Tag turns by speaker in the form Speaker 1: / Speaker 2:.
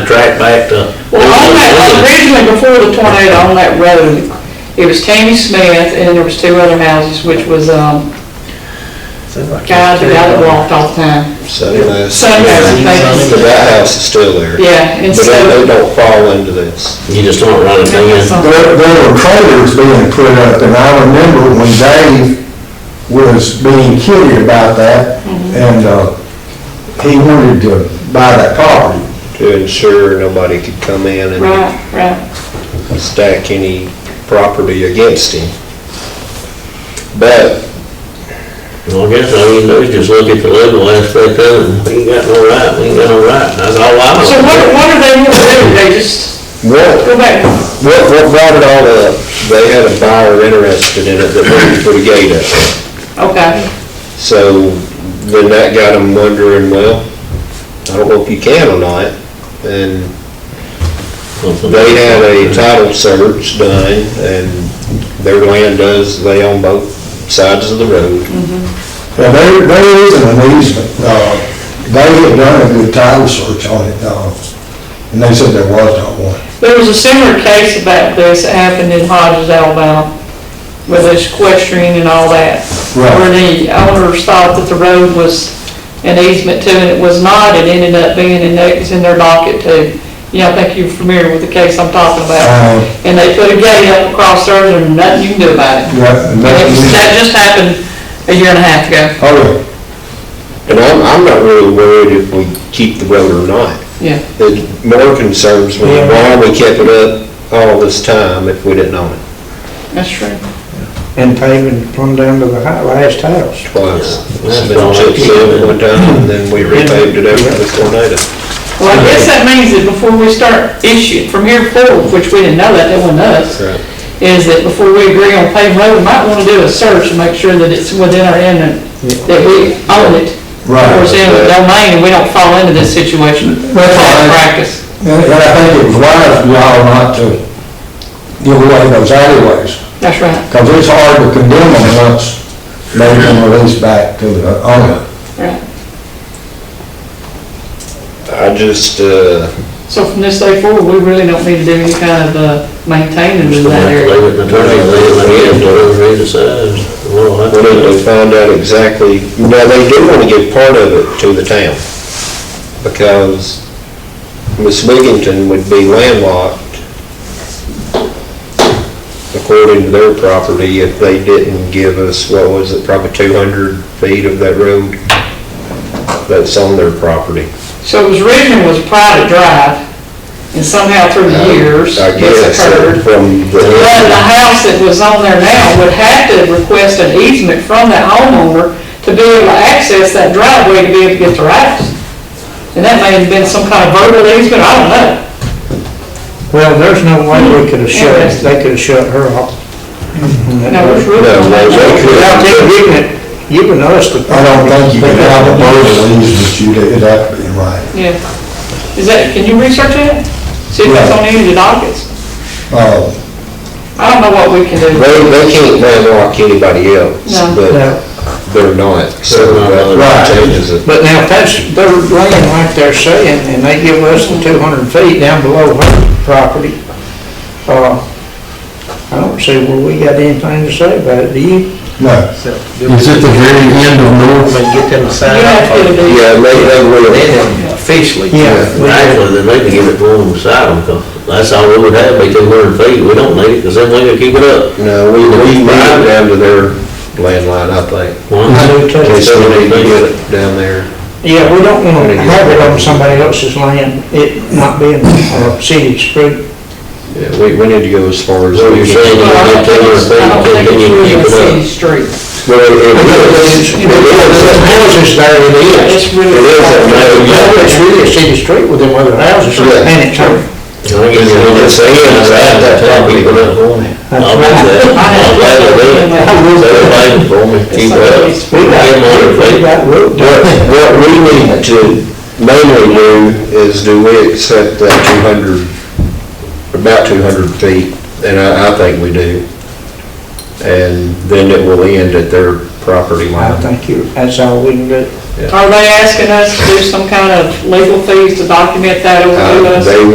Speaker 1: right back to.
Speaker 2: Well, on that, originally before the tornado, on that road, it was Tammy Smith and there was two other houses, which was, um, guys that I that walked all the time.
Speaker 3: Sunrise.
Speaker 2: Sunrise, thank you.
Speaker 3: But that house is still there.
Speaker 2: Yeah, and
Speaker 3: But they they
Speaker 2: so.
Speaker 3: don't fall into this.
Speaker 1: You just don't run it down.
Speaker 4: There, there were trailers being put up, and I remember when Dave was being kidded about that, and, uh, he wanted to buy that property.
Speaker 3: To ensure nobody could come in and
Speaker 2: Right, right.
Speaker 3: stack any property against him. But
Speaker 1: Well, I guess, I mean, they just look at the legal aspect of it, we ain't got no right, we ain't got no right, that's all I know.
Speaker 2: So what, what are they gonna do? They just
Speaker 3: what,
Speaker 2: go back?
Speaker 3: what, what brought it all up, they had a buyer interested in it that wanted to put a gate up.
Speaker 2: Okay.
Speaker 3: So then that got them wondering, well, I don't know if you can or not. And They had a title search done, and their land does, they own both sides of the road.
Speaker 4: Now, there, there is an easement, uh, they had done a good title search on it, uh, and they said there was not one.
Speaker 2: There was a similar case about this that happened in Hodges, Alabama, with this equestrian and all that.
Speaker 4: Right.
Speaker 2: Where the owners thought that the road was an easement too, and it was not, it ended up being, and it's in their docket too. You know, I think you're familiar with the case I'm talking about.
Speaker 4: Uh,
Speaker 2: And they put a gate up across there, and nothing you can do about it.
Speaker 4: yeah,
Speaker 2: And
Speaker 4: and
Speaker 2: it was- That
Speaker 4: that's,
Speaker 2: just happened a year and a half ago,
Speaker 4: oh,
Speaker 3: And I'm, I'm not really worried if we keep the road or not.
Speaker 2: yeah.
Speaker 3: It more concerns me, why we kept it up all this time if we didn't own it
Speaker 2: That's true.
Speaker 5: and paving plumb down to the hi- last house.
Speaker 3: twice.
Speaker 1: Yeah,
Speaker 3: It's
Speaker 1: that's all I
Speaker 3: been chip
Speaker 1: keep
Speaker 3: sealed
Speaker 1: it.
Speaker 3: one time, and then we repaved it after the tornado.
Speaker 2: Well, I guess that means that before we start issue, from here forward, which we didn't know that, that wasn't us. is that before we agree on paving road, we might want to do a search and make sure that it's within our eminent, that we own it. Or it's
Speaker 4: right.
Speaker 2: in the domain, and we don't fall into this situation,
Speaker 4: That's
Speaker 2: bad
Speaker 4: all right.
Speaker 2: practice.
Speaker 4: And, and I think it was wise for y'all not to give away those alleyways.
Speaker 2: That's right,
Speaker 4: Because it's hard to condemn them once they've been released back to the owner.
Speaker 2: right.
Speaker 3: I just, uh,
Speaker 2: So from this day forward, we really don't need to do any kind of uh, maintaining in that area.
Speaker 1: Leave it to attorney, leave it to him, whatever he decides. Well, I
Speaker 3: we need to find out exactly, now, they do want to give part of it to the town, because Miss Wigginton would be landlocked, according to their property, if they didn't give us, what was it, probably 200 feet of that road that's on their property.
Speaker 2: So it was originally was private drive, and somehow through the years,
Speaker 3: I
Speaker 2: it's
Speaker 3: guess, uh,
Speaker 2: occurred.
Speaker 3: from
Speaker 2: But the
Speaker 3: the,
Speaker 2: house that was on there now would have to request an easement from that homeowner to be able to access that driveway to be able to get to their house. And that may have been some kind of verbal easement, I don't know.
Speaker 5: Well, there's no way we could have shut, they could have shut her off.
Speaker 2: Mm-hmm. Now, which room
Speaker 3: No,
Speaker 2: on
Speaker 3: no,
Speaker 2: that?
Speaker 3: they could.
Speaker 5: Without them giving it, giving us the.
Speaker 4: I don't think you can have a verbal easement, you'd, it'd have to be right.
Speaker 2: Yeah. Is that, can you research that? See if that's on any of the dockets?
Speaker 4: Uh,
Speaker 2: I don't know what we can do.
Speaker 3: they, they can't landlock anybody else,
Speaker 2: No.
Speaker 3: but
Speaker 5: No.
Speaker 3: they're not, so
Speaker 1: They're
Speaker 4: not.
Speaker 3: that changes it.
Speaker 5: But now, if that's, they're laying like they're saying, and they give us the two hundred feet down below her property, uh, I don't see where we got anything to say about it, do you?
Speaker 4: no, it's at the very end of North.
Speaker 6: get them to sign
Speaker 2: You have
Speaker 6: off on
Speaker 2: to
Speaker 6: it.
Speaker 2: do,
Speaker 3: Yeah, they, they will.
Speaker 6: Then officially.
Speaker 5: we do.
Speaker 1: Actually, they need to give it to them beside them, 'cause that's all we would have, be two hundred feet, we don't need it, because then we can keep it up.
Speaker 3: No, we, we moved down to their landline, I think.
Speaker 1: Well,
Speaker 5: I do
Speaker 3: They
Speaker 5: too.
Speaker 3: still need to get it down there.
Speaker 5: Yeah, we don't wanna have it on somebody else's land, it not being, uh, city's street.
Speaker 3: Yeah, we, we need to go as far as.
Speaker 1: Well, you're saying
Speaker 2: well, I don't think it's, I don't think it's really a city street.
Speaker 3: Well, it- it is- it
Speaker 5: There's
Speaker 3: is-
Speaker 5: houses there, it is.
Speaker 2: It's really.
Speaker 3: It is a no,
Speaker 5: Yeah, it's really a city street with them other houses,
Speaker 3: Yeah.
Speaker 5: and it's her.
Speaker 1: I think it's on the sand, it's out that property, but it won't. I'll do that, I'll glad to do it. They're waiting for me, keep it up.
Speaker 5: We got,
Speaker 1: Give them a hundred
Speaker 5: we
Speaker 1: feet.
Speaker 5: got road
Speaker 3: What, what we need to mainly do is do we accept that two hundred, about two hundred feet, and I, I think we do. And then it will end at their property
Speaker 5: I
Speaker 3: line.
Speaker 5: think you, that's all we can do.
Speaker 2: Are they asking us to do some kind of legal fees to document that over to
Speaker 3: Uh,
Speaker 2: us?
Speaker 3: They